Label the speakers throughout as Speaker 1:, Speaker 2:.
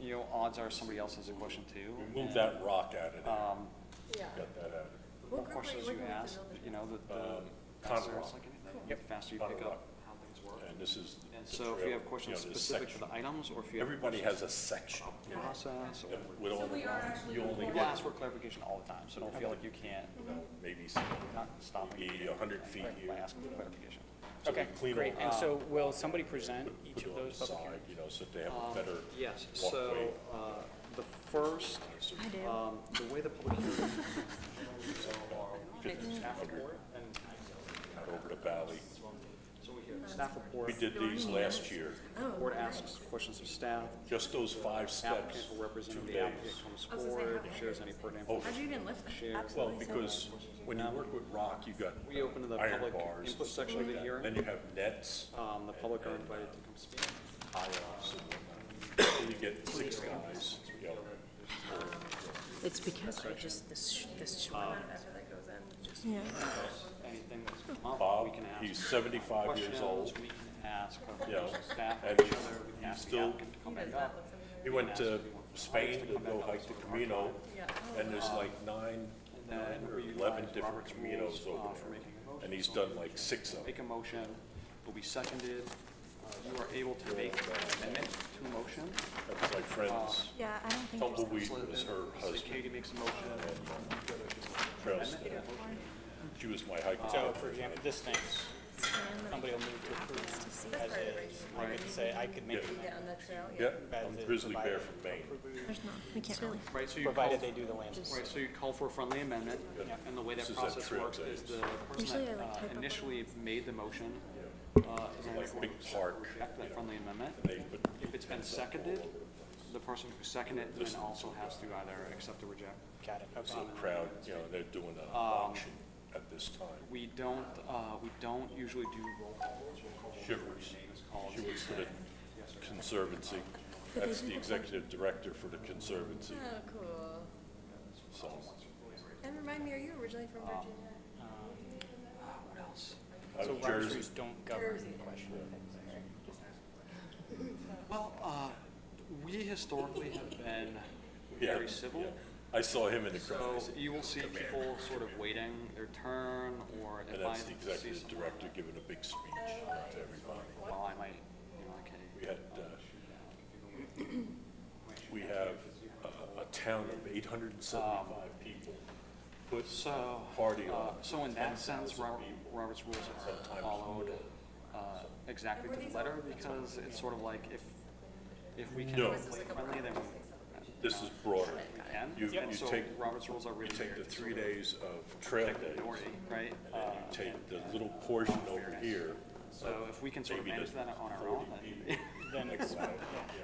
Speaker 1: you know, odds are somebody else has a question too.
Speaker 2: Move that rock out of there,
Speaker 1: Um,
Speaker 3: Yeah.
Speaker 2: get that out of
Speaker 3: What
Speaker 1: more
Speaker 3: group are you
Speaker 1: questions you
Speaker 3: working with
Speaker 1: ask,
Speaker 3: another-
Speaker 1: you know, the, the
Speaker 2: Um,
Speaker 1: faster
Speaker 2: Conroe.
Speaker 1: it's like anything, the faster you
Speaker 2: Conroe.
Speaker 1: pick up how things work.
Speaker 2: there. And this is.
Speaker 1: And
Speaker 2: the
Speaker 1: so if
Speaker 2: trail,
Speaker 1: you have questions
Speaker 2: you know, this
Speaker 1: specific to
Speaker 2: section.
Speaker 1: the Oh, items, or if you have
Speaker 2: Everybody has a section
Speaker 1: a process, or,
Speaker 2: that with all the, you only
Speaker 1: people
Speaker 2: get,
Speaker 1: ask for clarification all the time, so don't feel like you can't,
Speaker 2: you know, maybe, some-
Speaker 1: not stopping
Speaker 2: maybe a hundred feet
Speaker 1: by
Speaker 2: here.
Speaker 1: asking for clarification.
Speaker 2: So they
Speaker 4: Okay, uh,
Speaker 2: clean
Speaker 4: great.
Speaker 2: all
Speaker 4: And
Speaker 2: up,
Speaker 4: so will somebody present each
Speaker 2: put it
Speaker 4: of
Speaker 2: on the
Speaker 4: those public
Speaker 2: side,
Speaker 4: hearings?
Speaker 2: You know, so they have a
Speaker 1: Um,
Speaker 2: better
Speaker 1: Yes, so,
Speaker 2: walkway.
Speaker 1: uh, the first, um, the way the public hearing.
Speaker 2: Fifteen
Speaker 1: Staff
Speaker 2: hundred.
Speaker 1: report and,
Speaker 2: Out over the valley.
Speaker 1: so we hear staff report,
Speaker 2: We did these last year,
Speaker 3: Oh,
Speaker 1: board asks questions of staff,
Speaker 2: just those five steps,
Speaker 1: applicant will represent
Speaker 2: two
Speaker 1: the applicant
Speaker 2: days.
Speaker 1: comes
Speaker 3: I was gonna say,
Speaker 1: forward,
Speaker 3: how-
Speaker 1: shares any pertinent
Speaker 2: Oh,
Speaker 3: How'd you even lift that?
Speaker 1: Share.
Speaker 2: Well,
Speaker 3: Absolutely.
Speaker 2: because when you work with rock, you got
Speaker 1: We open to the
Speaker 2: iron
Speaker 1: public
Speaker 2: bars,
Speaker 1: input section of the
Speaker 2: like that.
Speaker 1: hearing.
Speaker 2: Then you have nets,
Speaker 1: Um, the public are invited to come speak.
Speaker 2: and you get six guys, you know,
Speaker 5: It's because I just, this,
Speaker 3: Um,
Speaker 5: this short.
Speaker 6: Yeah,
Speaker 1: Anything that's come up,
Speaker 2: Bob,
Speaker 1: we can ask.
Speaker 2: he's seventy-five years old.
Speaker 1: Questions, we can ask,
Speaker 2: Yeah.
Speaker 1: questions of staff,
Speaker 2: And
Speaker 1: each
Speaker 2: he's-
Speaker 1: other, we can
Speaker 2: he's
Speaker 1: ask the
Speaker 2: still-
Speaker 1: applicant to come back up.
Speaker 2: He went to Spain to go hike the Camino, and there's like nine, nine or eleven different Caminos over there. And he's done like six of them.
Speaker 1: Make a motion, will be seconded. Uh, You are able to make an amendment to a motion.
Speaker 2: That's my friend's
Speaker 6: yeah, I don't think. there's-
Speaker 2: tumbleweed was her
Speaker 1: So
Speaker 2: husband,
Speaker 1: Katie makes a motion,
Speaker 2: trail staff. She was my hiking.
Speaker 4: So for example, this thing, somebody will move to approve as is. I could say, I could make
Speaker 2: Yeah.
Speaker 4: an amendment,
Speaker 3: On the trail, yeah.
Speaker 2: Yeah,
Speaker 4: That's
Speaker 2: I'm
Speaker 4: it,
Speaker 2: Grizzly Bear
Speaker 4: provided.
Speaker 2: from Maine.
Speaker 6: There's not, we can't really.
Speaker 1: right, so you call,
Speaker 4: provided they do the landscape.
Speaker 1: right, so you call for a friendly amendment, and the way
Speaker 2: This
Speaker 1: that
Speaker 2: is that
Speaker 1: process
Speaker 2: trail
Speaker 1: works is
Speaker 2: days.
Speaker 1: the person
Speaker 6: Usually I,
Speaker 1: that
Speaker 6: like,
Speaker 1: uh,
Speaker 6: type up on
Speaker 1: initially made the motion, uh, is going to
Speaker 2: Big park,
Speaker 1: reject that friendly amendment.
Speaker 2: they put
Speaker 1: If it's been seconded, the person who seconded it then also has to either accept or reject.
Speaker 4: Got it, okay.
Speaker 2: the crowd, you know, they're doing
Speaker 4: Um,
Speaker 2: an auction at this time.
Speaker 1: We don't, uh, we don't usually do roll calls.
Speaker 2: Shivers, she was for the Conservancy. That's the executive director for the Conservancy,
Speaker 3: Oh, cool.
Speaker 2: so.
Speaker 3: And remind me, are you originally from Virginia?
Speaker 1: Uh, What else?
Speaker 2: Out
Speaker 4: So
Speaker 2: of
Speaker 4: Robert's
Speaker 2: Jersey,
Speaker 4: rules don't govern the question.
Speaker 1: Well, uh, we historically have been
Speaker 2: yeah,
Speaker 1: very civil.
Speaker 2: yeah. I saw him in the crowd,
Speaker 1: So
Speaker 2: I said,
Speaker 1: you will see people sort of waiting their turn, or
Speaker 2: and
Speaker 1: if I
Speaker 2: that's the
Speaker 1: see
Speaker 2: executive
Speaker 1: someone,
Speaker 2: director giving a big speech to everybody.
Speaker 1: well, I might, you know, okay.
Speaker 2: We had, uh, we have uh, a, a town of eight hundred and seventy-five people. Put
Speaker 1: So,
Speaker 2: party
Speaker 1: uh,
Speaker 2: on.
Speaker 1: so in that sense, Robert, Robert's rules are followed, uh, exactly to the letter, because it's sort of like if, if we can
Speaker 2: No.
Speaker 1: play friendly, then we
Speaker 2: This is broader.
Speaker 1: can.
Speaker 2: You,
Speaker 1: And
Speaker 2: you
Speaker 1: so
Speaker 2: take,
Speaker 1: Robert's rules are
Speaker 2: you
Speaker 1: really
Speaker 2: take the
Speaker 1: weird,
Speaker 2: three days of trail days,
Speaker 1: minority, right?
Speaker 2: and
Speaker 1: Uh,
Speaker 2: you take the little portion over here,
Speaker 1: So if we can sort of
Speaker 2: maybe
Speaker 1: manage
Speaker 2: the
Speaker 1: that on our own, then
Speaker 4: Then it's,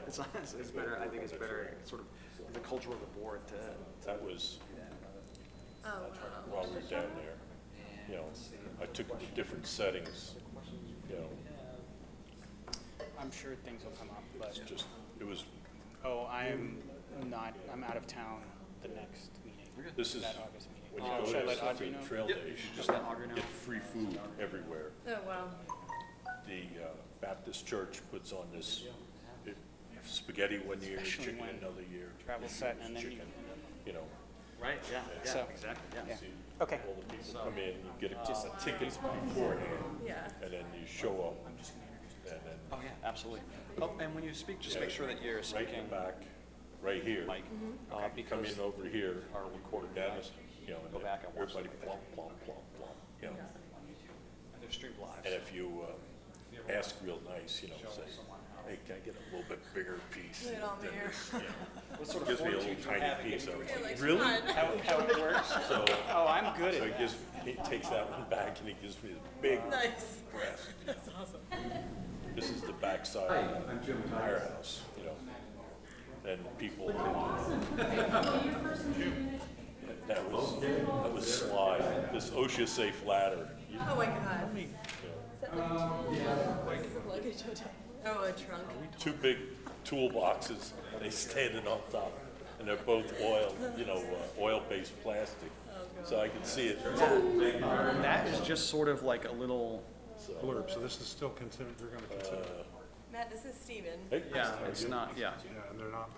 Speaker 1: it's, it's- it's better, I think it's better, sort of, the culture of the board to,
Speaker 2: that was
Speaker 3: Oh, wow.
Speaker 2: while we were down there. You know, I took the different settings, you know,
Speaker 4: I'm sure things will come up, but,
Speaker 2: it's just, it was,
Speaker 4: oh, I'm not, I'm out of town the next meeting,
Speaker 2: this is,
Speaker 4: that August meeting.
Speaker 2: when you
Speaker 4: Should I
Speaker 2: go
Speaker 4: let
Speaker 2: to
Speaker 4: Audrey
Speaker 2: the
Speaker 4: know?
Speaker 2: trail
Speaker 1: Yep,
Speaker 2: days,
Speaker 1: you should
Speaker 2: you
Speaker 1: just let Audrey know.
Speaker 2: get free food everywhere.
Speaker 3: Oh, wow.
Speaker 2: the uh, Baptist church puts on this it- spaghetti one year,
Speaker 4: Especially
Speaker 2: chicken
Speaker 4: when
Speaker 2: another year,
Speaker 4: Travel set and then you.
Speaker 2: chicken, you know.
Speaker 1: right, yeah, yeah,
Speaker 4: So-
Speaker 1: exactly, yeah.
Speaker 4: Yeah.
Speaker 2: see
Speaker 4: Okay.
Speaker 2: All the people come in, you get
Speaker 4: uh,
Speaker 2: a ticket beforehand,
Speaker 3: Yeah.
Speaker 2: and then you show up, and then
Speaker 1: Oh, yeah, absolutely. Oh, and when you speak, just make sure that you're
Speaker 2: right in
Speaker 1: speaking
Speaker 2: the back, right here,
Speaker 1: Mike, uh,
Speaker 2: come
Speaker 1: because
Speaker 2: in over here,
Speaker 1: our recorder
Speaker 2: that is, you know,
Speaker 1: Go
Speaker 2: and
Speaker 1: back and watch
Speaker 2: everybody plump, plump, plump, plump, you know.
Speaker 1: they're streamed live.
Speaker 2: And if you uh, ask real nice, you know, say, hey, can I get a little bit bigger piece?
Speaker 3: it on
Speaker 2: than
Speaker 3: there.
Speaker 2: this?" You know.
Speaker 1: What sort of
Speaker 2: Gives me a little
Speaker 1: fortitude do you have in
Speaker 2: tiny piece, I was
Speaker 3: You're
Speaker 2: like,
Speaker 3: like,
Speaker 2: really?
Speaker 3: "Come on."
Speaker 4: How, how it works?
Speaker 2: So,
Speaker 4: Oh, I'm good at
Speaker 2: so he
Speaker 4: that.
Speaker 2: gives, he takes that one back and he gives me the big
Speaker 3: Nice.
Speaker 2: breast.
Speaker 3: That's awesome.
Speaker 2: This is the backside of the firehouse, you know. And people. That was, that was sly. This OSHA safe ladder. You-
Speaker 3: Oh, my God. Is that like a trunk? Luggage hotel? Oh, a trunk.
Speaker 2: Two big toolboxes, they standing on top. And they're both oil, you know, uh, oil-based plastic. So I can see it.
Speaker 1: That is just sort of like a little,
Speaker 7: blurb, so this is still considered, they're gonna consider, it.
Speaker 3: Matt, this is Steven.
Speaker 2: Hey,
Speaker 1: yeah, it's not, yeah.
Speaker 7: yeah, and they're not